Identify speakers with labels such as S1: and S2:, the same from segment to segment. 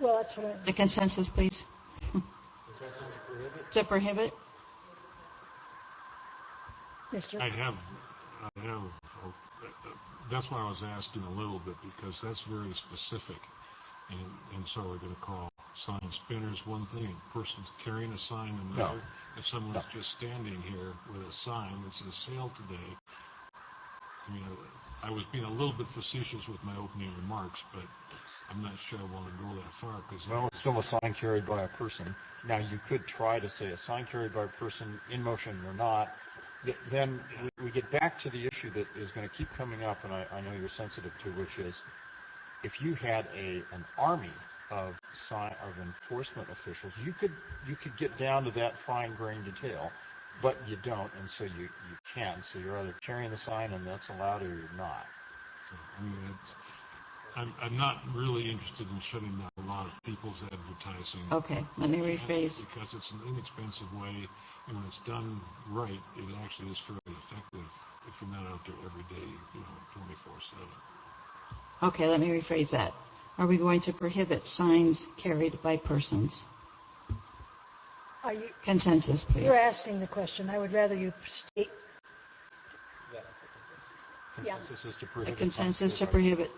S1: Well, that's what I,
S2: The consensus, please. To prohibit?
S1: Mr.
S3: I have, I have, oh, that's why I was asking a little bit, because that's very specific. And, and so we're gonna call sign spinners one thing, person's carrying a sign another. If someone's just standing here with a sign that says sale today, I mean, I was being a little bit facetious with my opening remarks, but I'm not sure I wanna go that far, because
S4: Well, it's still a sign carried by a person. Now, you could try to say a sign carried by a person in motion or not. Th- Then we- we get back to the issue that is going to keep coming up, and I, I know you're sensitive to, which is if you had a an army of sign of enforcement officials, you could you could get down to that fine grained detail, but you don't, and so you you can't. So you're either carrying the sign and that's allowed, or you're not.
S3: I mean, it's, I'm, I'm not really interested in shutting down a lot of people's advertising.
S2: Okay, let me rephrase.
S3: Because it's an inexpensive way, and when it's done right, it actually is fairly effective if you're not out there every day, you know, twenty-four seven.
S2: Okay, let me rephrase that. Are we going to prohibit signs carried by persons?
S1: are you,
S2: Consensus, please.
S1: you're asking the question. I would rather you state, Yeah.
S4: Consensus is to
S2: The
S4: prohibit. sign
S2: consensus to
S4: carried by-
S2: prohibit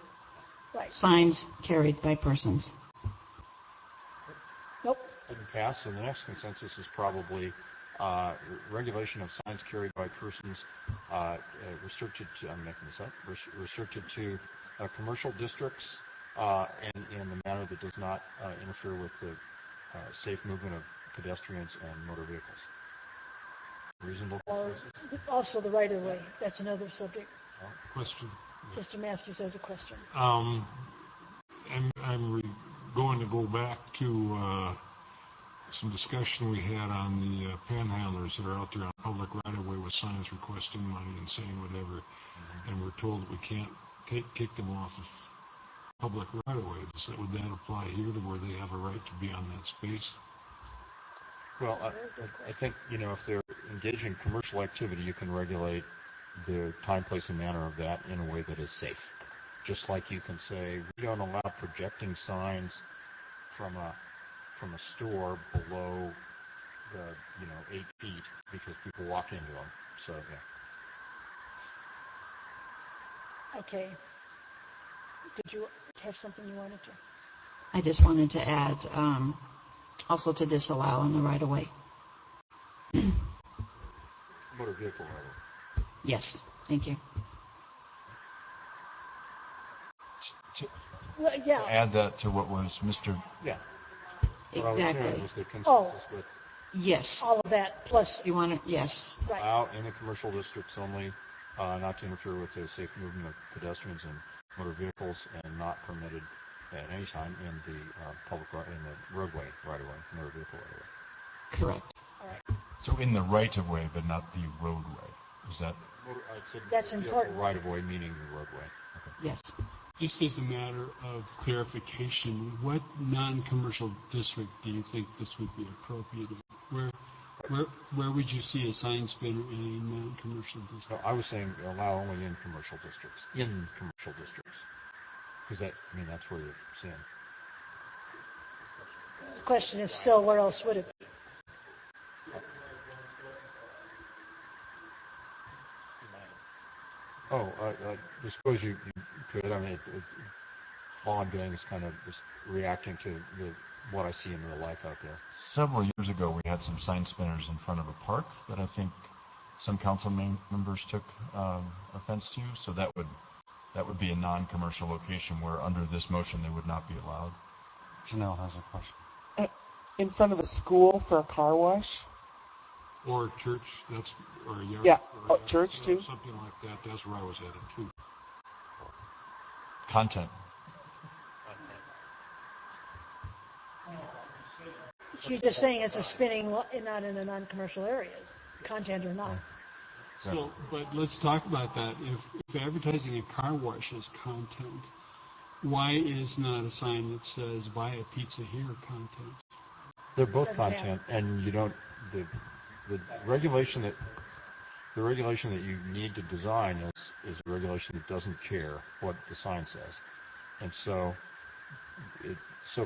S1: right,
S2: signs carried by persons.
S1: nope,
S4: didn't pass, so the next consensus is probably uh, re- regulation of signs carried by persons uh, uh, restricted to, I'm making this up, res- restricted to uh, commercial districts uh, and in a manner that does not uh, interfere with the uh, safe movement of pedestrians and motor vehicles. Reasonable
S1: or
S4: consensus?
S1: also the right of way. That's another subject.
S3: Question,
S1: Mr. Masters has a question.
S3: um, I'm, I'm re- going to go back to, uh, some discussion we had on the uh, panhandlers that are out there on public right-of-way with signs requesting money and saying whatever, and we're told that we can't take, kick them off of public right-of-way. Does that, would that apply here to where they have a right to be on that space?
S4: Well, I- I, I think, you know, if they're engaged in commercial activity, you can regulate the time, place, and manner of that in a way that is safe. Just like you can say, we don't allow projecting signs from a, from a store below the, you know, eight feet because people walk into them. So, yeah.
S1: Okay. Did you have something you wanted to?
S2: I just wanted to add, um, also to disallow on the right of way.
S4: Motor vehicle rather.
S2: Yes, thank you.
S1: Well, yeah,
S5: Add that to what was Mr.
S4: Yeah. What I was saying
S2: Exactly.
S4: Was the
S1: Oh.
S4: consensus with
S2: Yes.
S1: all of that, plus,
S2: You want to, yes.
S1: right,
S4: allow in the commercial districts only, uh, not to interfere with the safe movement of pedestrians and motor vehicles, and not permitted at any time in the uh, public ri- in the roadway right away, motor vehicle right away.
S2: Correct.
S1: all right.
S5: So in the right of way, but not the roadway. Is that
S4: Motor- I said
S1: That's
S4: vehicle
S1: important.
S4: Right of way meaning the roadway.
S2: Yes.
S6: Just as a matter of clarification, what non-commercial district do you think this would be appropriate in? Where, where, where would you see a sign spinner in a non-commercial
S4: So
S6: district?
S4: I was saying allow only in commercial districts. In commercial districts, because that I mean that's where you're seeing.
S1: The question is still, where else would it be?
S4: Oh, I, I I suppose you, you could. I mean, it, it, all I'm doing is kind of just reacting to the, what I see in real life out there.
S5: several years ago we had some sign spinners in front of a park that I think some council mem- members took um, offense to. So that would that would be a non-commercial location where under this motion they would not be allowed.
S7: Janelle has a question.
S8: in front of a school for a car wash.
S3: Or a church, that's, or a yard?
S8: Yeah,
S3: or a
S8: oh, church
S3: yard sale,
S8: too.
S3: Something like that, that's where I was headed too.
S5: Content.
S1: You're just saying it's a spinning, lo- and not in a non-commercial area, content or not.
S6: So, but let's talk about that. If, if advertising a car wash is content, why is not a sign that says buy a pizza here content?
S4: They're both
S1: Doesn't matter.
S4: content, and you don't, the, the regulation that, the regulation that you need to design is, is a regulation that doesn't care what the sign says. And so, it, so